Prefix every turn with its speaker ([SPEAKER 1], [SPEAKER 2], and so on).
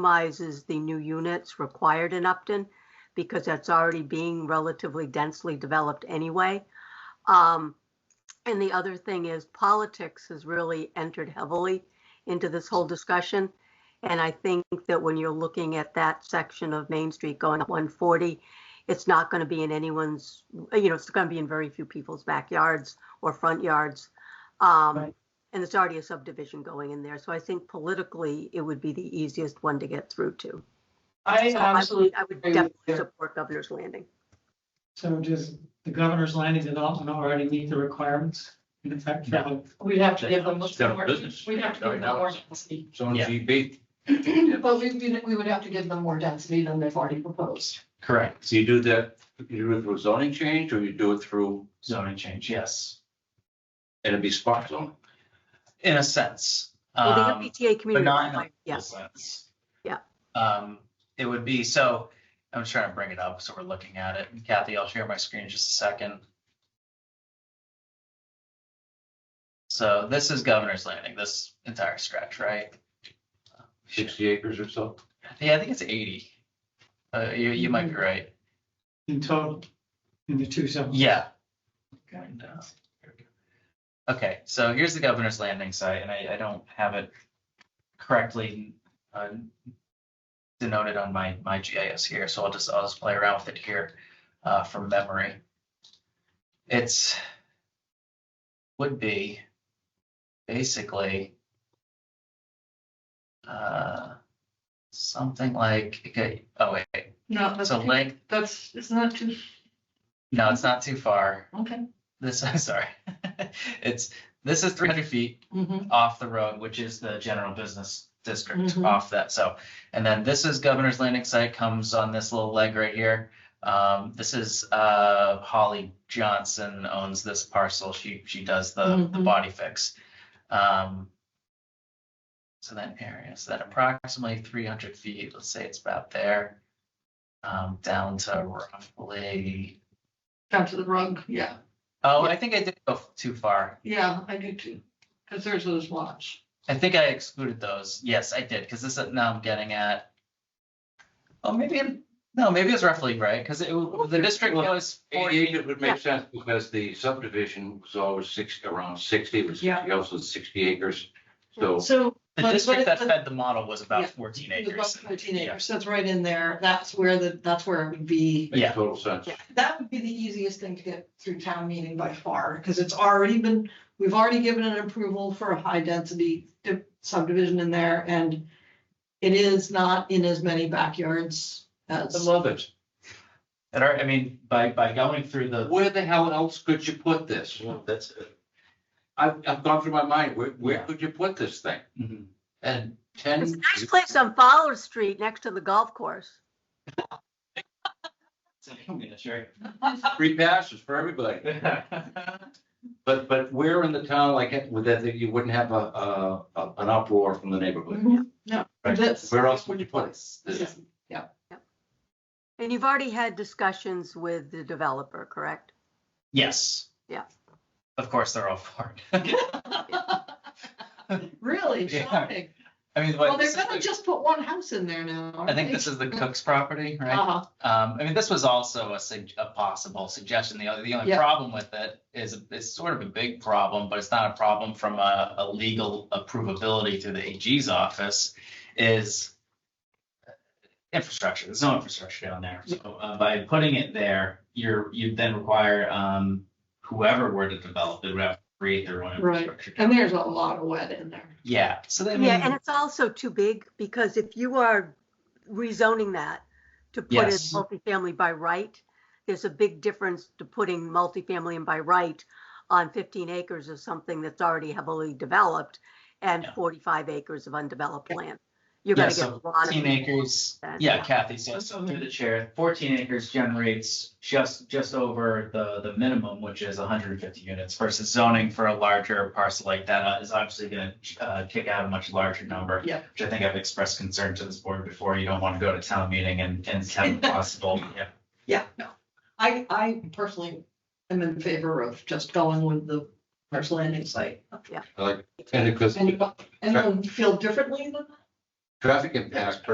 [SPEAKER 1] minimizes the new units required in Upton because that's already being relatively densely developed anyway. Um, and the other thing is politics has really entered heavily into this whole discussion. And I think that when you're looking at that section of Main Street going up 140, it's not going to be in anyone's, you know, it's going to be in very few people's backyards or front yards. Um,
[SPEAKER 2] Right.
[SPEAKER 1] and it's already a subdivision going in there. So I think politically, it would be the easiest one to get through to.
[SPEAKER 2] I
[SPEAKER 1] So I would-
[SPEAKER 2] absolutely,
[SPEAKER 1] I would
[SPEAKER 2] agree with
[SPEAKER 1] definitely
[SPEAKER 2] you.
[SPEAKER 1] support Governor's Landing.
[SPEAKER 3] So does the governor's landing development already meet the requirements in effect for the
[SPEAKER 2] we'd have to give them
[SPEAKER 4] It's their
[SPEAKER 2] more,
[SPEAKER 4] business.
[SPEAKER 2] we'd have to give them more density.
[SPEAKER 4] It's on
[SPEAKER 5] Yeah.
[SPEAKER 4] GB.
[SPEAKER 2] But we, we- we would have to give them more density than they've already proposed.
[SPEAKER 5] Correct,
[SPEAKER 4] So you do that, you do it through zoning change or you do it through,
[SPEAKER 5] zoning change, yes,
[SPEAKER 4] and it'd be spot zoning.
[SPEAKER 5] in a sense.
[SPEAKER 1] Well, the
[SPEAKER 5] Um,
[SPEAKER 1] MBTA community,
[SPEAKER 5] not in a
[SPEAKER 1] requirement,
[SPEAKER 5] full
[SPEAKER 1] yes,
[SPEAKER 5] sense.
[SPEAKER 1] Yeah.
[SPEAKER 5] Um, it would be, so I'm just trying to bring it up, so we're looking at it. And Kathy, I'll share my screen in just a second. So this is Governor's Landing, this entire stretch, right?
[SPEAKER 4] Sixty acres or so.
[SPEAKER 5] Yeah, I think it's eighty. Uh, you, you might be
[SPEAKER 1] Mm-hmm.
[SPEAKER 5] right.
[SPEAKER 3] in total, in the two zones?
[SPEAKER 5] Yeah.
[SPEAKER 3] Okay.
[SPEAKER 5] And, uh, here we go. Okay, so here's the governor's landing site, and I, I don't have it correctly uh, denoted on my, my GIS here, so I'll just, I'll just play around with it here uh, from memory. It's, would be basically uh, something like, okay, oh wait,
[SPEAKER 2] No, that's,
[SPEAKER 5] so length,
[SPEAKER 2] that's, isn't that too,
[SPEAKER 5] no, it's not too far.
[SPEAKER 2] okay.
[SPEAKER 5] This, I'm sorry. It's, this is three hundred feet
[SPEAKER 2] Mhm.
[SPEAKER 5] off the road, which is the general business district
[SPEAKER 2] Mhm.
[SPEAKER 5] off that, so. And then this is Governor's Landing site comes on this little leg right here. Um, this is, uh, Holly Johnson owns this parcel. She, she does the, the
[SPEAKER 2] Mhm.
[SPEAKER 5] body fix. Um. So that area, so that approximately three hundred feet, let's say it's about there. Um, down to roughly,
[SPEAKER 2] Down to the rug, yeah,
[SPEAKER 5] oh, I think I did go too far.
[SPEAKER 2] yeah, I do too, because there's those lots.
[SPEAKER 5] I think I excluded those. Yes, I did, because this is now I'm getting at. Oh, maybe, it- no, maybe it's roughly right, because it, w- the district goes
[SPEAKER 4] Eighty
[SPEAKER 5] forty.
[SPEAKER 4] acres would make sense because the subdivision was always six, around sixty, which
[SPEAKER 2] Yeah.
[SPEAKER 4] is also sixty acres. So
[SPEAKER 2] So.
[SPEAKER 5] The
[SPEAKER 2] but-
[SPEAKER 5] district
[SPEAKER 2] but
[SPEAKER 5] that
[SPEAKER 2] the-
[SPEAKER 5] fed the model was
[SPEAKER 2] Yeah,
[SPEAKER 5] about fourteen
[SPEAKER 2] the
[SPEAKER 5] acres.
[SPEAKER 2] bus Fourteen
[SPEAKER 5] Yeah.
[SPEAKER 2] acres, that's right in there, that's where the, that's where it would be,
[SPEAKER 4] makes
[SPEAKER 5] Yeah.
[SPEAKER 4] total sense.
[SPEAKER 1] Yeah.
[SPEAKER 2] that would be the easiest thing to get through town meeting by far, because it's already been, we've already given an approval for a high density di- subdivision in there, and it is not in as many backyards
[SPEAKER 4] I
[SPEAKER 2] as,
[SPEAKER 4] love it.
[SPEAKER 5] And I I mean, by, by going through the,
[SPEAKER 4] Where the hell else could you put this?
[SPEAKER 5] that's,
[SPEAKER 4] I've, I've gone through my mind, where, where
[SPEAKER 5] Yeah.
[SPEAKER 4] could you put this thing?
[SPEAKER 2] Mm-hmm.
[SPEAKER 5] mhm.
[SPEAKER 4] And ten.
[SPEAKER 1] It's a nice place on Fowler Street next to the golf course.
[SPEAKER 5] That's right.
[SPEAKER 4] Free passes for everybody. But, but where in the town, like, with that, that you wouldn't have a, a, a- an uproar from the neighborhood?
[SPEAKER 2] no.
[SPEAKER 5] Right.
[SPEAKER 2] this-
[SPEAKER 4] Where else would you put it?
[SPEAKER 2] This is-
[SPEAKER 1] And you've already had discussions with the developer, correct?
[SPEAKER 5] Yes.
[SPEAKER 1] Yeah.
[SPEAKER 5] Of course, they're all for it.
[SPEAKER 2] Really
[SPEAKER 5] Yeah.
[SPEAKER 2] shocking,
[SPEAKER 5] I mean,
[SPEAKER 2] well,
[SPEAKER 5] what,
[SPEAKER 2] they're
[SPEAKER 5] this is
[SPEAKER 2] gonna
[SPEAKER 5] the-
[SPEAKER 2] just put one house in there now.
[SPEAKER 5] I think this is the Cook's property, right?
[SPEAKER 2] Uh-huh,
[SPEAKER 5] Um, I mean, this was also a sug- a possible suggestion. The only, the only
[SPEAKER 2] Yeah.
[SPEAKER 5] problem with it is it's sort of a big problem, but it's not a problem from a, a legal approvability through the AG's office is infrastructure. There's no infrastructure down there. So uh, by putting it there, you're, you'd then require, um, whoever were to develop, it would have to create their own
[SPEAKER 2] Right.
[SPEAKER 5] infrastructure.
[SPEAKER 2] and there's a lot of wet in there.
[SPEAKER 5] Yeah, so then,
[SPEAKER 1] Yeah, and it's also too big because if you are rezoning that to put it
[SPEAKER 5] Yes.
[SPEAKER 1] multifamily by right, there's a big difference to putting multifamily and by right on 15 acres of something that's already heavily developed and
[SPEAKER 5] Yeah.
[SPEAKER 1] 45 acres of undeveloped land. You're
[SPEAKER 5] Yeah,
[SPEAKER 1] gonna get a
[SPEAKER 5] so
[SPEAKER 1] lot
[SPEAKER 5] Fourteen
[SPEAKER 1] of,
[SPEAKER 5] acres,
[SPEAKER 1] that,
[SPEAKER 5] yeah,
[SPEAKER 1] yeah.
[SPEAKER 5] Kathy, so so through the chair, fourteen acres generates just, just over the, the minimum, which is hundred and fifty units versus zoning for a larger parcel like that is obviously gonna, uh, kick out a much larger number.
[SPEAKER 2] Yeah.
[SPEAKER 5] Which I think I've expressed concern to this board before, you don't wanna go to town meeting and, and have possible, yeah.
[SPEAKER 2] Yeah, no, I, I personally am in favor of just going with the first landing site.
[SPEAKER 4] Like, and because
[SPEAKER 2] And, and then feel differently than
[SPEAKER 4] traffic impact